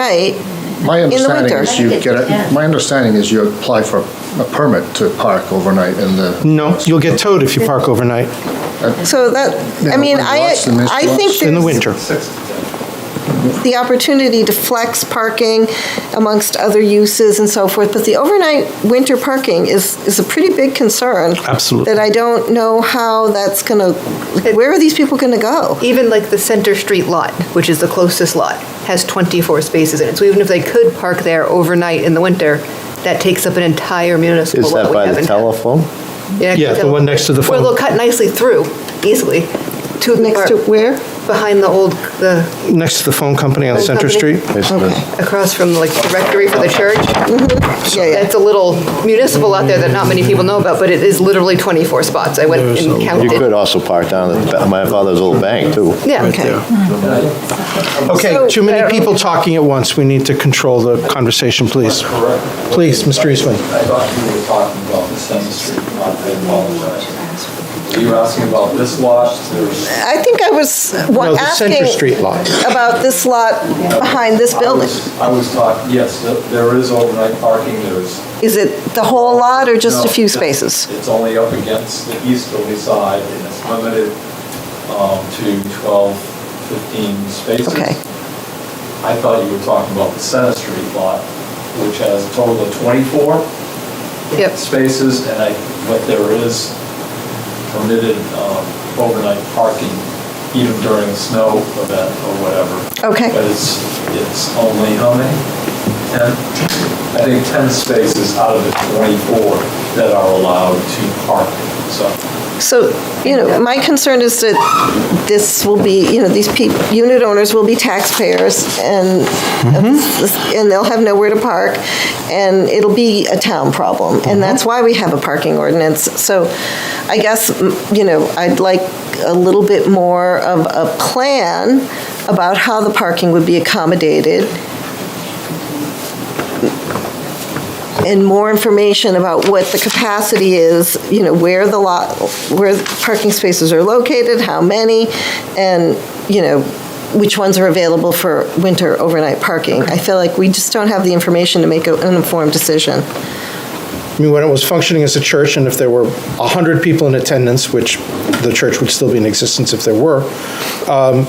night. My the understanding winter. is you get, a- my understanding is you apply for a permit to park overnight in the. No, you'll get towed if you park overnight So that, I Yeah, mean, but I, lots and there's I think lots. in the there's winter. the opportunity to flex parking amongst other uses and so forth, but the overnight winter parking is, is a pretty big concern. Absolutely. That I don't know how that's gonna, like, where are these people gonna go? Even like the Center Street lot, which is the closest lot, has 24 spaces in it. So even if they could park there overnight in the winter, that takes up an entire municipal lot. Is that we by the haven't- telephone? Yeah, Yeah, the one next to the Where phone. they'll cut nicely through, easily, to Next to the, where? behind the old, the, next to the phone company on Phone Center company? Street. It's the- across from like the rectory for the church. Yeah, yeah. That's a little municipal out there that not many people know about, but it is literally 24 spots. I went and You counted. could also park down at the ba- my father's old bank, too. Yeah. Okay. Okay, So- too many people talking at once. We need to control the conversation, please. Please, Mr. Eastman. I thought you were talking about the Center Street lot, I apologize. You were asking about this lot, there's. I think I was wa- No, the Center asking Street lot. about this lot behind this building. I was taught, yes, th- there is overnight parking, there's. Is it the whole lot or just a no, few it's- spaces? It's only up against the easterly side, and it's limited um, to 12, 15 spaces. Okay. I thought you were talking about the Center Street lot, which has a total of 24. Yep. spaces, and I, but there is permitted um, overnight parking even during a snow event or whatever. Okay. But it's, it's only how many? 10? I think 10 spaces out of the 24 that are allowed to park, so. So, you know, my concern is that this will be, you know, these peop unit owners will be taxpayers and, and they'll have nowhere to park and it'll be a town problem. And that's why we have a parking ordinance. So I guess, m- you know, I'd like a little bit more of a plan about how the parking would be accommodated and more information about what the capacity is, you know, where the lot, where the parking spaces are located, how many, and, you know, which ones are available for winter overnight parking. I feel like we just don't have the information to make a- an informed decision. I mean, when it was functioning as a church, and if there were 100 people in attendance, which the church would still be in existence if there were, um,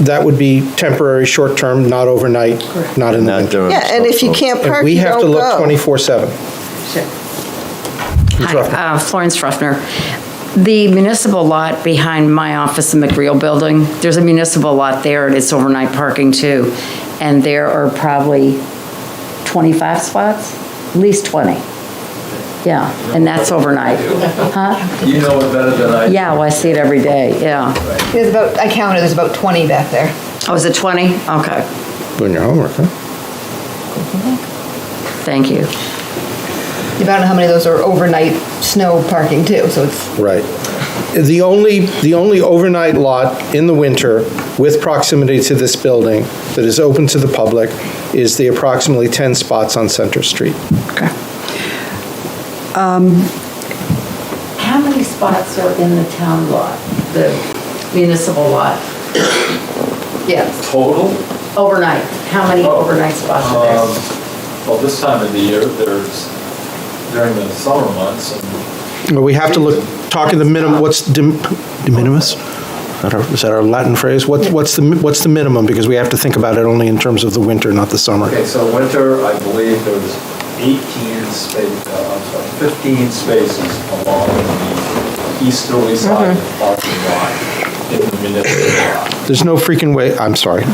that would be temporary, short-term, not overnight, not in the Not winter. during Yeah, and if you snowstorm. can't And park, we you have to don't look go. 24/7. Hi, uh, Florence Ruffner. The municipal lot behind my office in McReal Building, there's a municipal lot there, and it's overnight parking too. And there are probably 25 spots, at least 20. Yeah, and that's overnight. Huh? You know it better than I do. Yeah, well, I see it every day, yeah. There's about, I counted, there's about 20 back there. Oh, is it 20? Okay, Doing your homework, huh? thank you. You don't know how many of those are overnight snow parking too, so it's Right. The only, the only overnight lot in the winter with proximity to this building that is open to the public is the approximately 10 spots on Center Street. How many spots are in the town lot, the municipal lot? Yes, Total, overnight. How many overnight spots are there? um, well, this time of the year, there's, during the summer months, and Well, We have to look, talk in the minimum, what's de de minimis? Is that our- Is that our Latin phrase? What- What's the, mi- what's the minimum? Because we have to think about it only in terms of the winter, not the summer. Okay, so winter, I believe there was 18 space, uh, I'm sorry, 15 spaces along the easterly side of the parking lot in the municipal lot. There's no freaking way, I'm sorry.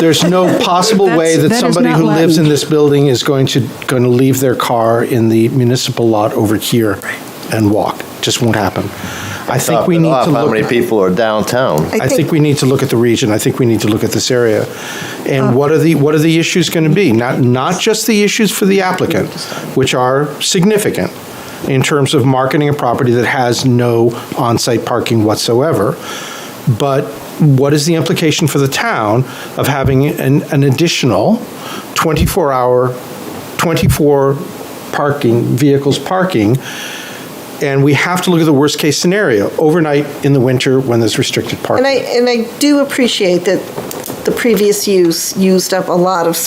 There's no possible way that That's- that is somebody not who lives in Latin. this building is going to, going to leave their car in the municipal lot over here and walk. Just won't happen. I think Top we it need off, to How many look, people are downtown? I think we need to look at the region. I think we need to look at this area. And what are the, what are the issues going to be? Not, not just the issues for the applicant, which are significant in terms of marketing a property that has no on-site parking whatsoever, but what is the implication for the town of having an, an additional 24-hour, 24 parking, vehicles parking? And we have to look at the worst-case scenario, overnight in the winter when there's restricted parking. And I, and I do appreciate that the previous use used up a lot of